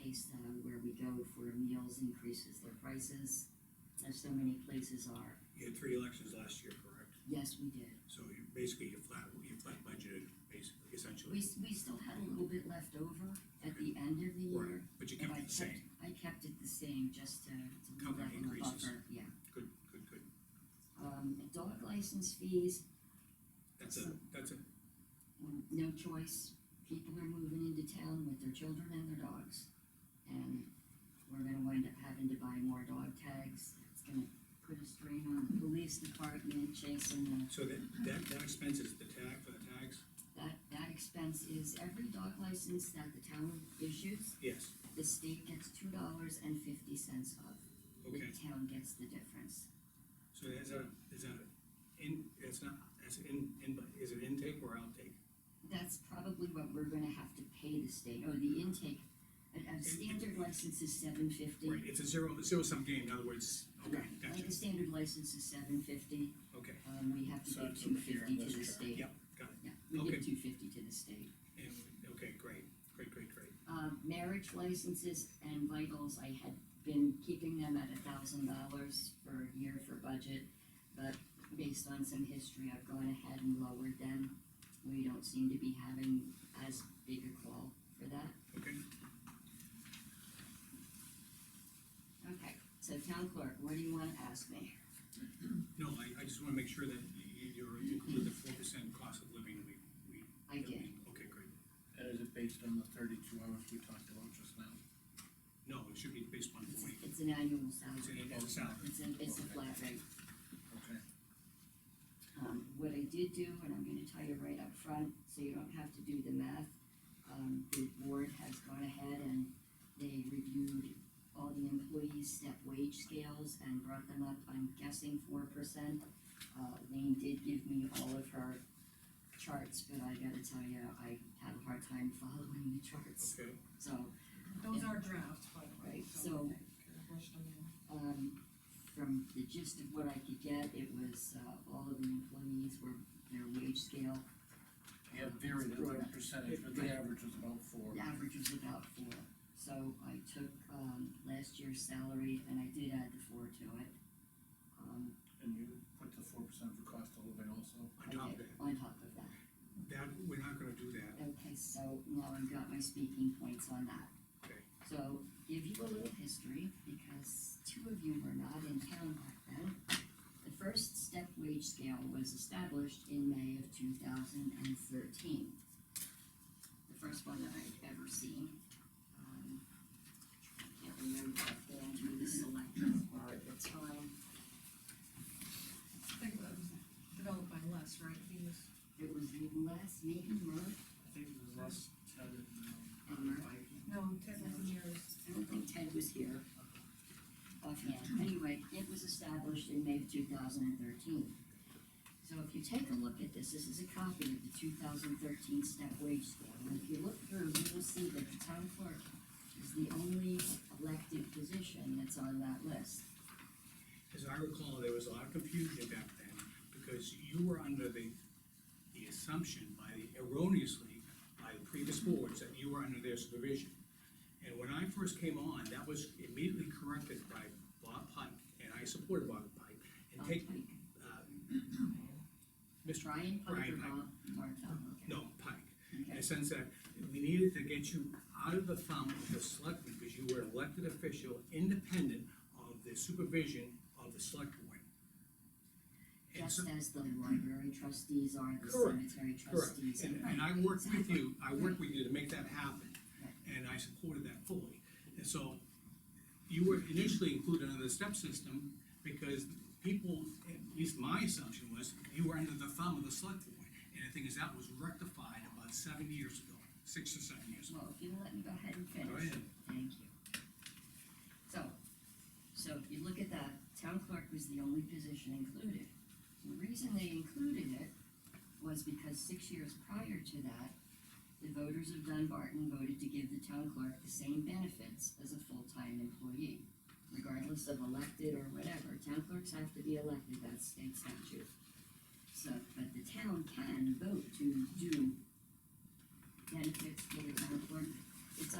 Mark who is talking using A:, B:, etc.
A: place uh, where we go for meals increases their prices, as so many places are.
B: You had three elections last year, correct?
A: Yes, we did.
B: So you, basically, you flat, you flat budgeted, basically,
A: We,
B: essentially.
A: s- we still had a little bit left over at the end of the
B: Right,
A: year.
B: but you
A: but
B: kept
A: I
B: it the same.
A: I kept it the same, just to, to leave
B: Cover
A: that in the
B: increases.
A: buffer, yeah.
B: Good, good, good.
A: Um, dog license fees,
B: That's a, that's a,
A: mm, no choice. People are moving into town with their children and their dogs. And we're gonna wind up having to buy more dog tags. It's gonna put a strain on the police department chasing the
B: so that, that, that expense is the tag for the tags?
A: That, that expense is every dog license that the town issues,
B: Yes,
A: the state gets two dollars and fifty cents of. The
B: okay.
A: town gets the difference.
B: So is that, is that in, that's not, that's in, in, is it intake or outtake?
A: That's probably what we're gonna have to pay the state, or the intake, a, a standard license is seven fifty.
B: Right, it's a zero, zero sum game, in other words, okay, gotcha,
A: Like a standard license is seven fifty,
B: okay,
A: um, we have to
C: So
A: give
C: it's
A: two
C: over here
A: fifty
C: in
A: to the
C: this chart.
A: state.
B: yep, got it.
A: Yeah, we
B: Okay.
A: give two fifty to the state.
B: And- okay, great, great, great, great.
A: Um, marriage licenses and vitals, I had been keeping them at a thousand dollars for a year for budget, but based on some history, I've gone ahead and lowered them. We don't seem to be having as big a call for that.
B: Okay,
A: Okay. So town clerk, what do you wanna ask me?
B: no, I, I just wanna make sure that you, you're included the four percent cost of living we, we.
A: I
B: that we-
A: did,
B: Okay, great.
C: And is it based on the thirty-two hours we talked about just now?
B: No, it should be based on the
A: it's,
B: weight,
A: it's an annual
B: it's an
A: salary,
B: annual salary.
A: it's a, it's a flat rate.
C: Okay.
A: Um, what I did do, and I'm gonna tell you right up front, so you don't have to do the math, um, the board has gone ahead and they reviewed all the employees' step wage scales and brought them up, I'm guessing four percent. Uh, Lane did give me all of her charts, but I gotta tell you, I have a hard time following the charts,
B: Okay,
A: so,
D: Those are drafts, by the way.
A: right, so,
D: Brush them in.
A: um, from the gist of what I could get, it was, uh, all of the employees were, their wage scale
C: Yeah, varied it by percentage, but the average was about four.
A: The average was about four, so I took, um, last year's salary and I did add the four to it. Um,
C: And you put the four percent for cost of living also?
A: I
B: on top of
A: did-
B: that,
A: On top of that,
B: that, we're not gonna do that,
A: okay, so now I've got my speaking points on that.
B: Okay.
A: So, give you a little history, because two of you were not in town back then. The first step wage scale was established in May of two thousand and thirteen. The first one that I'd ever seen. Um, I Can't remember if Dan drew the selection bar at the time.
D: I think that was developed by Les, right? He was,
A: It was Les, Nathan Murray,
C: I think it was less um, ten and,
A: and Murray.
D: no, Ted was yours.
A: I don't think Ted was here offhand. Anyway, it was established in May of two thousand and thirteen. So if you take a look at this, this is a copy of the two thousand thirteen step wage scale. And if you look through, you will see that the town clerk is the only elected position that's on that list.
B: As I recall, there was a lot of confusion back then, because you were under the, the assumption by, the- erroneously, by the previous boards, that you were under their supervision. And when I first came on, that was immediately corrected by Bob Pike, and I supported Bob Pike, and take,
A: Like,
B: uh, Mr.
A: Brian Piper,
B: Brian Piper.
A: Bob Martel, okay.
B: No, Pike, in
A: Okay.
B: the sense that we needed to get you out of the thumb of the selectmen, because you were an elected official, independent of the supervision of the select board. And so,
A: Just as the library trustees are, the
B: Correct,
A: cemetery
B: correct,
A: trustees.
B: and, and I worked with you, I worked with you to make that happen, and I supported that fully. And so, you were initially included under the step system, because people, at least my assumption was, you were under the thumb of the select board. And the thing is, that was rectified about seven years ago, six or seven years ago.
A: Well, if you let me go ahead and finish.
B: Go ahead.
A: Thank you. So, so if you look at that, town clerk was the only position included. The reason they included it was because six years prior to that, the voters of Dunbarton voted to give the town clerk the same benefits as a full-time employee. Regardless of elected or whatever, town clerks have to be elected, that's state statute. So, but the town can vote to do benefits for the town clerk